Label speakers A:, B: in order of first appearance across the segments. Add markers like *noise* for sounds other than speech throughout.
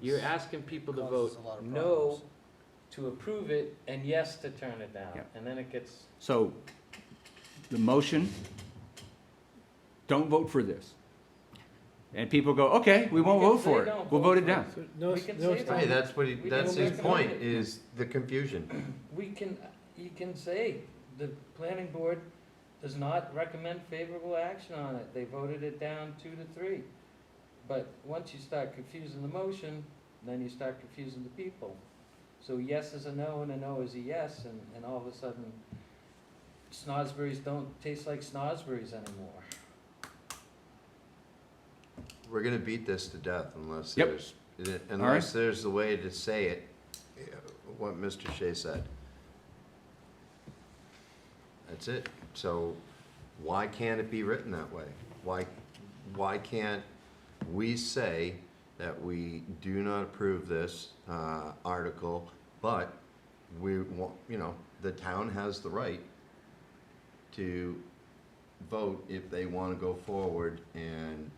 A: You're asking people to
B: Causes
A: vote
B: a lot of
A: no to approve it and yes to turn it down.
C: Yeah.
A: And then it gets,
C: So the motion, don't vote for this. And people go, okay, we won't
A: We can
C: vote for
A: say
C: it.
A: don't
C: We'll
A: vote
C: vote it
A: for it.
C: down.
D: So No,
A: We can
D: no,
A: say
D: it's
A: that.
E: Hey, that's what he,
A: We
E: that's
A: don't
E: his
A: recommend
E: point,
A: it.
E: is the confusion.
A: we can, you can say, the planning board does not recommend favorable action on it. They voted it down two to three. But once you start confusing the motion, then you start confusing the people. So yes is a no and a no is a yes, and, and all of a sudden, snozzberries don't taste like snozzberries anymore.
E: We're gonna beat this to death unless
C: Yep.
E: there's, unless there's a way to say it, uh, what Mr. Shea said. That's it. So why can't it be written that way? Why, why can't we say that we do not approve this, uh, article, but we want, you know, the town has the right to vote if they wanna go forward and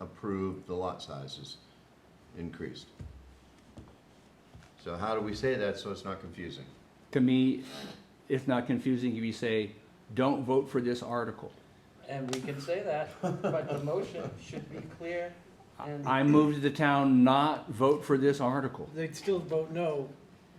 E: approve the lot sizes increased. So how do we say that so it's not confusing?
C: To me, it's not confusing if you say, don't vote for this article.
A: And we can say that, but the motion should be clear and.
C: I move to the town not vote for this article.
D: They'd still vote no,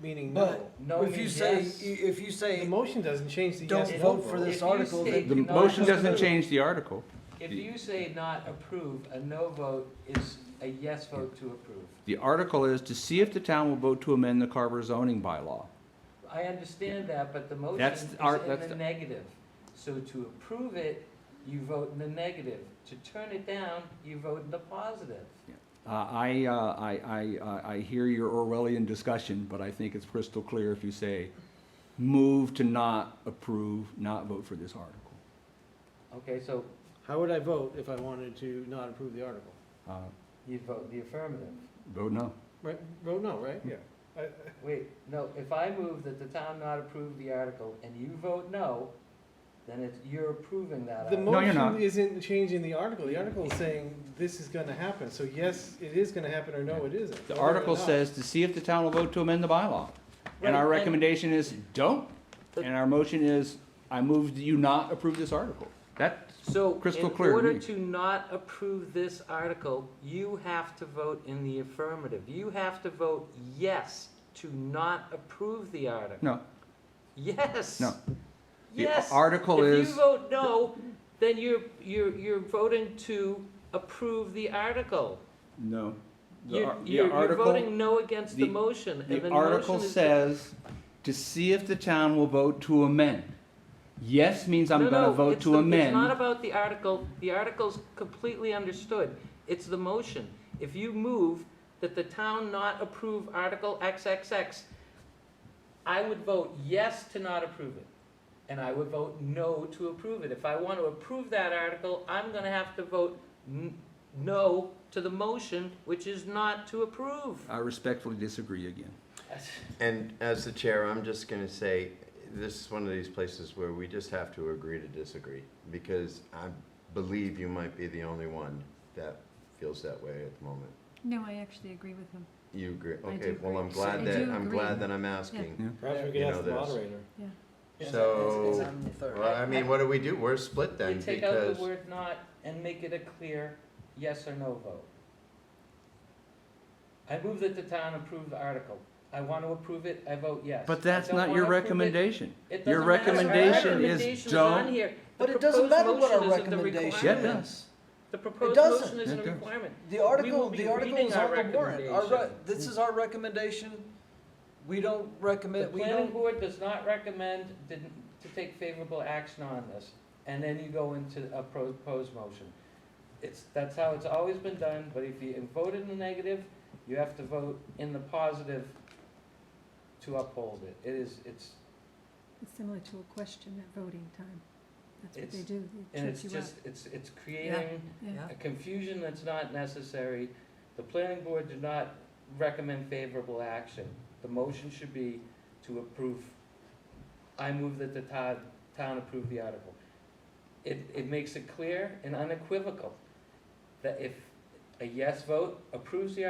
D: meaning no.
B: But
A: No
B: if you
A: means
B: say,
A: yes.
B: if you
D: The
B: say,
D: motion doesn't change the yes
B: don't
A: If-
D: no
B: vote for
A: if
B: this
A: you
B: article,
A: say
B: then
C: The
A: do not
C: motion doesn't
A: approve-
C: change the article.
A: If you say not approve, a no vote is a yes vote to approve.
C: The article is to see if the town will vote to amend the Carver zoning bylaw.
A: I understand that, but the motion
C: That's
A: is
C: the art-
A: in
C: that's
A: the
C: the-
A: negative. So to approve it, you vote in the negative. To turn it down, you vote in the positive.
C: Uh, I, uh, I, I, I- I hear your Orwellian discussion, but I think it's crystal clear if you say, move to not approve, not vote for this article.
A: Okay, so
D: How would I vote if I wanted to not approve the article?
C: Uh,
A: you vote the affirmative.
C: Vote no.
D: Right, vote no, right? Yeah.
A: Wait, no, if I move that the town not approve the article and you vote no, then it's, you're approving
B: Uh,
A: that
D: The
A: article.
C: No, you're
D: motion
C: not.
D: isn't changing the article, the article is saying this is gonna happen, so yes, it is gonna happen, or no, it isn't.
C: The
D: Whether or
C: article
D: not.
C: says to see if the town will vote to amend the bylaw. And our
A: Right, and-
C: recommendation is, don't. And our motion is, I move that you not approve this article. That,
A: So,
C: Crystal
A: in
C: clear to
A: order
C: me.
A: to not approve this article, you have to vote in the affirmative. You have to vote yes to not approve the article.
C: no,
A: Yes.
C: No. The
A: Yes.
C: article
A: If you
C: is-
A: vote no, then you're, you're, you're voting to approve the article.
C: no. The
A: You're,
C: ar- the
A: you're, you're
C: article-
A: voting no against the
C: the-
A: motion, and the
C: The article
A: motion is.
C: says to see if the town will vote to amend. Yes means I'm
A: No,
C: gonna
A: no,
C: vote
A: it's
C: to
A: the- It's not
C: amend.
A: about the article, the article's completely understood, it's the motion. If you move that the town not approve Article XXX, I would vote yes to not approve it, and I would vote no to approve it. If I want to approve that article, I'm gonna have to vote n- no to the motion, which is not to
C: *laughs*
A: approve.
C: I respectfully disagree again.
E: And as the chair, I'm just gonna say, this is one of these places where we just have to agree to disagree, because I believe you might be the only one that feels that way at the moment.
F: No, I actually agree with him.
E: You agree?
F: I
E: Okay,
F: do
E: well, I'm
F: agree.
E: glad
F: I
E: that,
F: do
E: I'm
F: agree.
E: glad that I'm asking.
B: Perhaps we
E: could ask the
D: moderator.
B: it's-
E: So-
B: it's- it's a third.
E: Well, I mean, what do we do? We're split
A: You
E: then,
A: take out
E: because,
A: the word not and make it a clear yes or no vote. I move that the town approve the article. I want to approve it, I vote yes.
C: But
A: I
C: that's
A: don't
C: not your
A: wanna approve it,
C: recommendation.
A: it
C: your
A: doesn't matter. Our
C: recommendation is
A: recommendation's
C: don't-
A: on here. The
B: But it doesn't
A: proposed
B: matter what
A: motion
B: our
A: isn't the
B: recommendation
C: Yeah, it
A: requirement.
C: does.
A: The proposed
B: doesn't.
A: motion isn't
C: It
A: a
C: does.
A: requirement.
B: The article,
A: be
B: the article
A: reading
B: is
A: our
B: on the warrant. Our re-
A: recommendation.
B: This is our recommendation. We don't
A: The
B: recommend, we
A: planning
B: don't,
A: board does not recommend didn't- to take favorable action on this, and then you go into a proposed motion. It's, that's how it's always been done, but if you vote in the negative, you have to vote in the positive to uphold it. It is, it's,
F: It's similar to a question at voting time. That's what they
A: It's-
F: do, they
A: and it's
F: trip you up.
A: just, it's, it's creating
F: Yeah.
A: a confusion that's not necessary. The planning board did not recommend favorable action. The motion should be to approve, I move that the town, town approve the article. It, it makes it clear and unequivocal that if a yes vote approves the